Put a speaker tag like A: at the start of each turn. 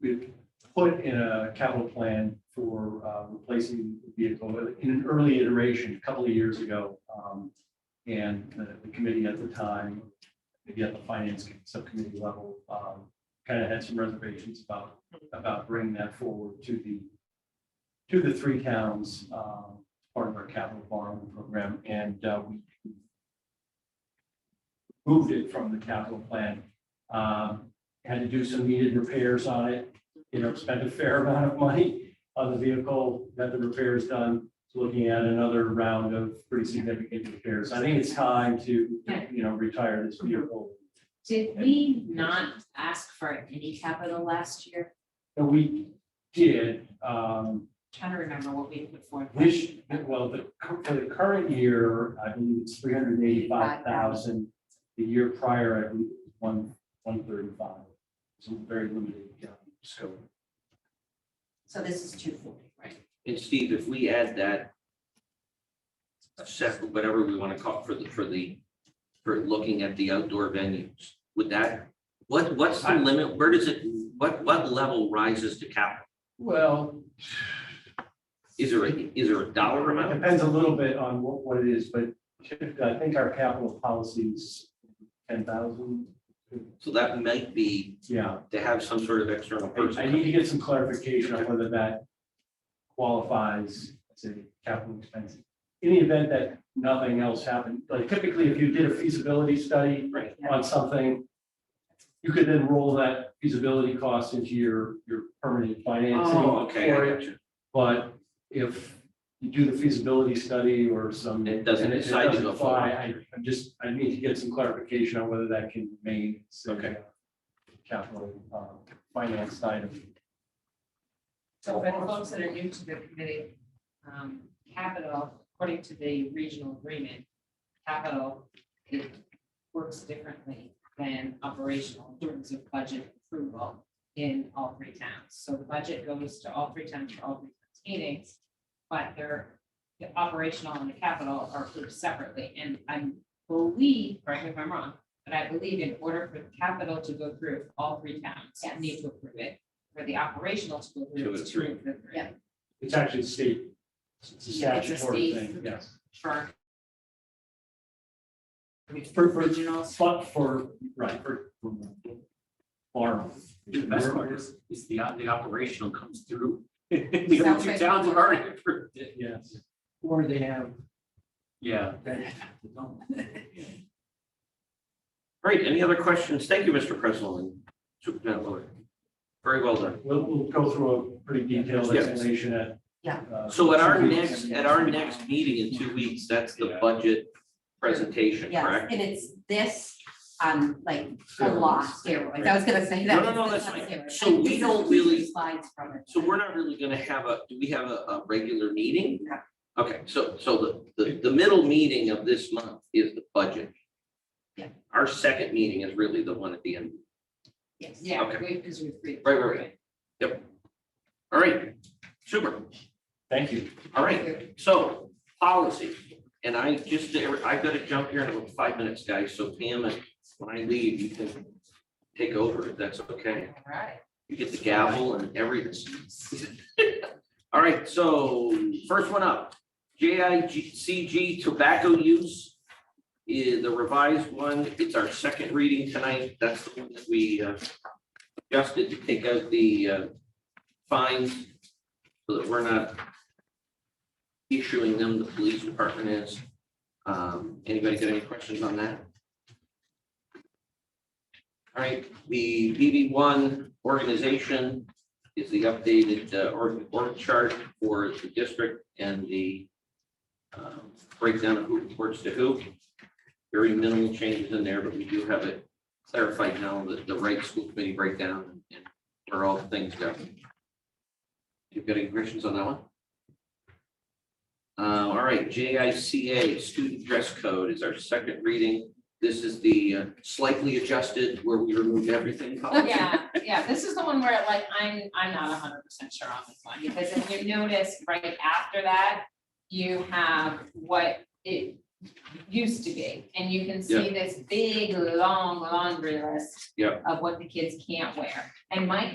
A: we put in a capital plan for uh, replacing the vehicle in an early iteration, a couple of years ago. Um, And the the committee at the time, maybe at the finance subcommittee level, kind of had some reservations about, about bringing that forward to the, to the three towns, um, part of our capital borrowing program. And uh, we moved it from the capital plan. Um, Had to do some needed repairs on it you know, spent a fair amount of money on the vehicle, got the repairs done, It's looking at another round of pretty significant repairs. I think it's time to, you know, retire this vehicle.
B: Did we not ask for any capital last year?
A: And we did, um,
B: Trying to remember what we put forth.
A: this, well, the, for the current year, I believe it's three hundred and eighty-five thousand. The year prior, I believe, it was one, one thirty-five. So very limited, um, scope.
B: So this is two forty, right?
C: And Steve, if we add that separate, whatever we want to call it for the, for the, for looking at the outdoor venues, would that, what, what's the limit? Where does it, what, what level rises to capital?
A: Well,
C: Is there a is there a dollar
A: It
C: amount?
A: Depends a little bit on what, what it is, but typically, I think our capital policy is ten thousand.
C: So that might be
A: Yeah,
C: to have some sort of external
A: I I
C: person.
A: need to get some clarification on whether that qualifies as a capital expense. In the event that nothing else happened, like typically, if you did a feasibility study
C: Right.
A: on something, you could then roll that feasibility cost into your, your permanent financing.
C: Oh, okay,
A: for
C: I
A: it.
C: got you.
A: But if you do the feasibility study or some.
C: It doesn't
A: and
C: decide to
A: doesn't
C: go forward.
A: fly, I, I'm just, I need to get some clarification on whether that can remain. so,
C: Okay.
A: Capital, um, finance side of.
B: So for the folks that are new to the committee, um, capital, according to the regional agreement, capital, it works differently than operational in terms of budget approval in all three towns. So the budget goes to all three towns for all three towns meetings, but they're, the operational and the capital are approved separately. And I believe, correct me if I'm wrong, but I believe in order for the capital to go through, all three towns
D: Yes.
B: need to approve it for the operational to go
C: Two
B: through.
C: of
B: it's
C: the three.
B: two of the three.
D: Yeah.
A: It's actually state. It's a
B: Yeah, it's a
A: statutory
B: state-
A: thing, yes.
B: For.
A: For- for-
B: Originals.
A: But for, right, for. Farm.
E: The best part is, is the, the operational comes through. The
D: Sounds
E: other two
D: like-
E: towns have already approved it.
A: Yes.
F: Or they have
E: Yeah.
C: Great. Any other questions? Thank you, Mr. President. and Superintendent Lewis. Very well done.
A: We'll, we'll go through a pretty detailed
C: Yes.
A: explanation at.
D: Yeah.
A: uh,
C: So at our
A: two weeks.
C: next, at our next meeting in two weeks, that's the budget presentation,
D: Yes,
C: correct?
D: and it's this, um, like, a lot steroids, I was gonna say
C: No, no,
D: that.
C: no,
D: it's
C: that's
D: not
C: fine.
D: steroids.
C: So we
D: This is
C: don't
D: two
C: really-
D: Slides from it.
C: So we're not really gonna have a, do we have a, a regular meeting?
D: No.
C: Okay, so, so the, the, the middle meeting of this month is the budget.
D: Yeah.
C: Our second meeting is really the one at the end.
D: Yes.
B: Yeah,
C: Okay.
B: we, because we've. read
C: Right, right,
B: through it.
C: All right, super,
A: Thank you.
C: all right, so policy. And I just, I've gotta jump here in about five minutes, guys, so Pam, if- when I leave, you can take over if that's okay.
B: All right.
C: You get the gavel and everything. All right, so first one up, JICG tobacco use. Is the revised one, it's our second reading tonight, that's the one that we uh, adjusted to take out the uh, fines. So that we're not issuing them, the police department is. Um, Anybody got any questions on that? All right, the BB one organization is the updated uh, org, org chart for the district and the um, breakdown of who reports to who. Very minimal changes in there, but we do have it clarified now that the right school committee breakdown and where all the things go. You've got any questions on that one? Uh, all right, JICA, student dress code is our second reading. This is the uh, slightly adjusted where we removed everything. policy.
B: Yeah, yeah, this is the one where like, I'm, I'm not hundred percent sure on this one, because if you notice right after that, you have what it used to be, and you can see this big, long laundry list
C: Yeah.
B: of what the kids can't wear. And my